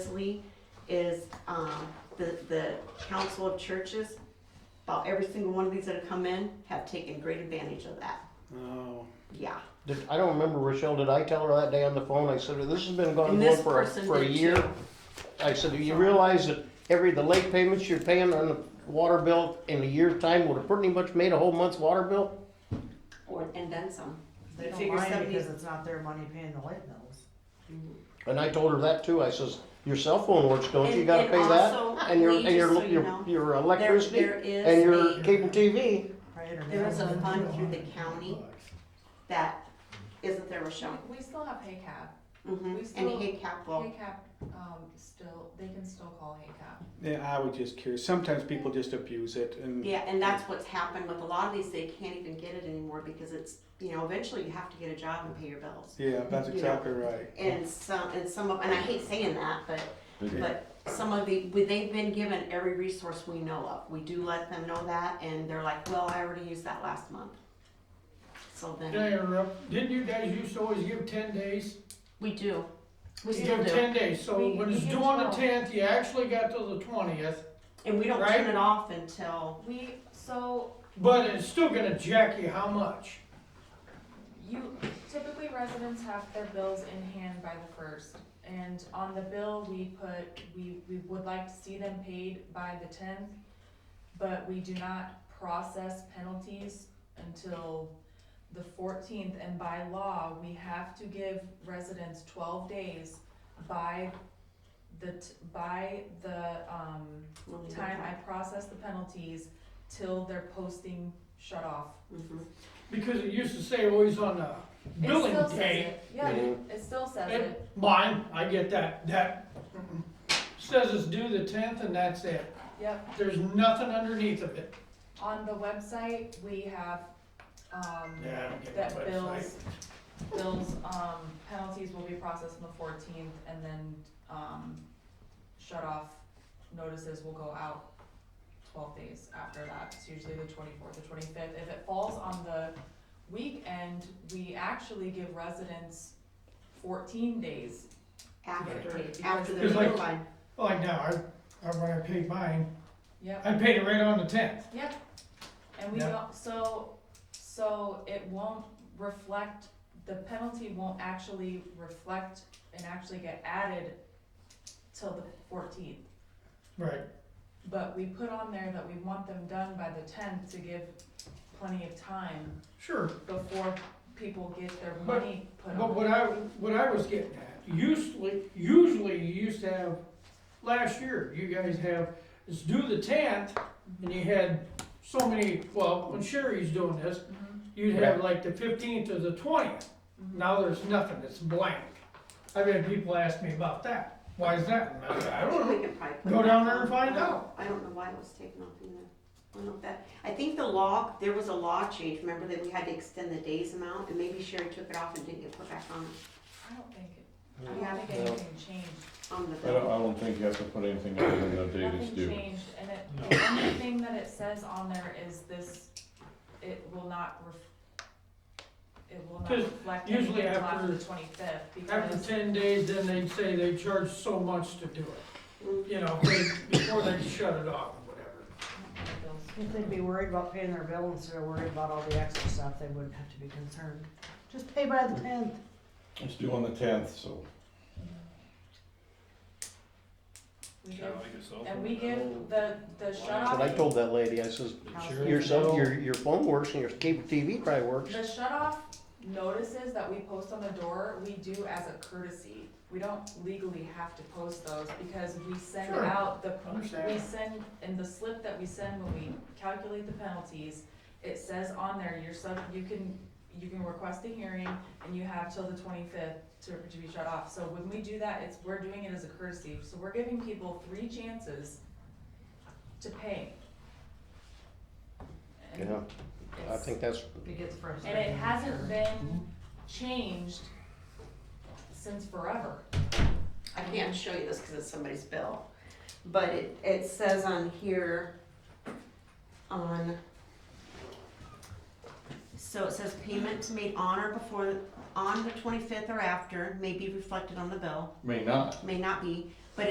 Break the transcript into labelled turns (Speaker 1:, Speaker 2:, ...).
Speaker 1: Leslie is um, the, the Council of Churches. About every single one of these that have come in have taken great advantage of that.
Speaker 2: Oh,
Speaker 1: Yeah.
Speaker 3: Did, I don't remember, Rochelle, did I tell her that day on the phone, I said, this has been going
Speaker 1: And
Speaker 3: on
Speaker 1: this
Speaker 3: for a,
Speaker 1: person
Speaker 3: for a
Speaker 1: did
Speaker 3: year?
Speaker 1: too.
Speaker 3: I said, do you realize that every, the late payments you're paying on the water bill in a year's time would have pretty much made a whole month's water bill?
Speaker 1: Or, and then some.
Speaker 4: They don't
Speaker 1: Figure
Speaker 4: mind because
Speaker 1: 70
Speaker 4: it's not their money paying the light bills.
Speaker 3: And I told her that too, I says, your cell phone works, don't you
Speaker 1: And-
Speaker 3: gotta
Speaker 1: and
Speaker 3: pay
Speaker 1: also,
Speaker 3: that? And your,
Speaker 1: we-
Speaker 3: and
Speaker 1: just so
Speaker 3: your,
Speaker 1: you know,
Speaker 3: your, your
Speaker 1: There,
Speaker 3: electricity
Speaker 1: there is
Speaker 3: and your
Speaker 1: a,
Speaker 3: cable TV,
Speaker 1: there is a fund through the county that, isn't there, Rochelle?
Speaker 5: We still have HACAP.
Speaker 1: Mm-hmm.
Speaker 5: We
Speaker 1: And
Speaker 5: still-
Speaker 1: HACAP will,
Speaker 5: HACAP, um, still, they can still call HACAP.
Speaker 2: yeah, I was just curious. Sometimes people just abuse it and.
Speaker 1: yeah, and that's what's happened with a lot of these, they can't even get it anymore because it's, you know, eventually you have to get a job and pay your bills.
Speaker 2: Yeah, that's
Speaker 1: Yeah.
Speaker 2: exactly right.
Speaker 1: And some, and some of, and I hate saying that, but
Speaker 2: Yeah.
Speaker 1: But some of the, we- they've been given every resource we know of. We do let them know that, and they're like, well, I already used that last month. So
Speaker 6: Can I
Speaker 1: then,
Speaker 6: interrupt? Didn't you guys used to always give ten days?
Speaker 1: we do. We
Speaker 6: You
Speaker 1: still
Speaker 6: give
Speaker 1: do.
Speaker 6: Ten days, so
Speaker 5: We-
Speaker 6: when
Speaker 5: we
Speaker 6: it's
Speaker 5: give
Speaker 6: due on the
Speaker 5: 12.
Speaker 6: tenth, you actually got till the twentieth,
Speaker 1: And we don't
Speaker 6: Right?
Speaker 1: turn it off until,
Speaker 5: We, so
Speaker 6: but it's still gonna jack you how much?
Speaker 5: you, typically residents have their bills in hand by the first. And on the bill, we put, we, we would like to see them paid by the tenth, but we do not process penalties until the fourteenth. And by law, we have to give residents twelve days by the, t- by the, um,
Speaker 1: when we
Speaker 5: time I process the penalties till their posting shut off.
Speaker 1: Mhm.
Speaker 6: Because it used to say always on the
Speaker 5: It
Speaker 6: billing
Speaker 5: still says
Speaker 6: day.
Speaker 5: it. Yeah,
Speaker 3: Mhm.
Speaker 5: it still says
Speaker 6: It-
Speaker 5: it.
Speaker 6: Mine, I get that, that mm-mm. says it's due the tenth and that's it.
Speaker 5: Yep.
Speaker 6: There's nothing underneath of it.
Speaker 5: On the website, we have, um,
Speaker 6: Yeah, I don't get the
Speaker 5: that
Speaker 6: website.
Speaker 5: bills, bills, um, penalties will be processed on the fourteenth and then, um, shut off notices will go out twelve days after that. It's usually the twenty-fourth, the twenty-fifth. If it falls on the weekend, we actually give residents fourteen days
Speaker 1: After,
Speaker 5: Yeah.
Speaker 1: after
Speaker 6: Because
Speaker 1: they're
Speaker 6: like-
Speaker 1: notified.
Speaker 6: Like now, I, I, when I paid mine,
Speaker 5: Yep,
Speaker 6: I paid it right on the tenth.
Speaker 5: and we
Speaker 6: Yeah.
Speaker 5: don't, so, so it won't reflect, the penalty won't actually reflect and actually get added till the fourteenth.
Speaker 6: Right,
Speaker 5: But we put on there that we want them done by the tenth to give plenty of time
Speaker 6: sure.
Speaker 5: before people get their
Speaker 6: But-
Speaker 5: money put
Speaker 6: But
Speaker 5: on.
Speaker 6: what I, what I was getting at, usually, usually you used to have, last year, you guys have, it's due the tenth, and you had so many, well, when Sherry's doing this,
Speaker 5: Mhm,
Speaker 6: you'd have like the fifteenth or the twentieth.
Speaker 5: mhm.
Speaker 6: Now there's nothing, it's blank. I've had people ask me about that, why is that? And I said, I don't
Speaker 1: We
Speaker 6: know.
Speaker 1: can probably put
Speaker 6: Go
Speaker 1: that
Speaker 6: down there and
Speaker 1: on.
Speaker 6: find out.
Speaker 1: I don't know why it was taken off either. I don't know if that, I think the law, there was a law change, remember that we had to extend the days amount, and maybe Sherry took it off and didn't get put back on,
Speaker 5: I don't think it, I
Speaker 1: Yeah.
Speaker 5: don't think
Speaker 3: No.
Speaker 5: anything changed.
Speaker 1: on the
Speaker 7: I don't,
Speaker 1: bill.
Speaker 7: I don't think you have to put anything other than the date is
Speaker 5: Nothing
Speaker 7: due.
Speaker 5: changed, and it, the only thing that it says on there is this, it will not ref, it will not
Speaker 6: 'Cause
Speaker 5: reflect
Speaker 6: usually
Speaker 5: anything until
Speaker 6: after-
Speaker 5: after the twenty-fifth,
Speaker 6: After
Speaker 5: because,
Speaker 6: ten days, then they'd say they charge so much to do it,
Speaker 1: Mm,
Speaker 6: you know, they- before they shut it off or whatever.
Speaker 4: If they'd be worried about paying their bill instead of worried about all the extra stuff, they wouldn't have to be concerned. Just pay by the tenth.
Speaker 7: It's due on the tenth, so.
Speaker 5: we give, and we give the, the shut
Speaker 3: but I
Speaker 5: off,
Speaker 3: told that lady, I says,
Speaker 4: Sure.
Speaker 3: your cell, your, your phone works and your cable TV probably works.
Speaker 5: the shut off notices that we post on the door, we do as a courtesy. We don't legally have to post those, because we send
Speaker 6: Sure.
Speaker 5: out the
Speaker 6: Understand.
Speaker 5: We send, in the slip that we send when we calculate the penalties, it says on there, you're sub, you can, you can request a hearing and you have till the twenty-fifth to, to be shut off. So when we do that, it's, we're doing it as a courtesy, so we're giving people three chances to pay. And
Speaker 3: Yeah, I
Speaker 5: it's-
Speaker 3: think that's,
Speaker 4: It gets
Speaker 5: And
Speaker 4: frustrating.
Speaker 5: it hasn't been changed since forever.
Speaker 1: I can't show you this because it's somebody's bill, but it, it says on here, on, so it says payments made on or before, on the twenty-fifth or after may be reflected on the bill,
Speaker 7: May not.
Speaker 1: may not be,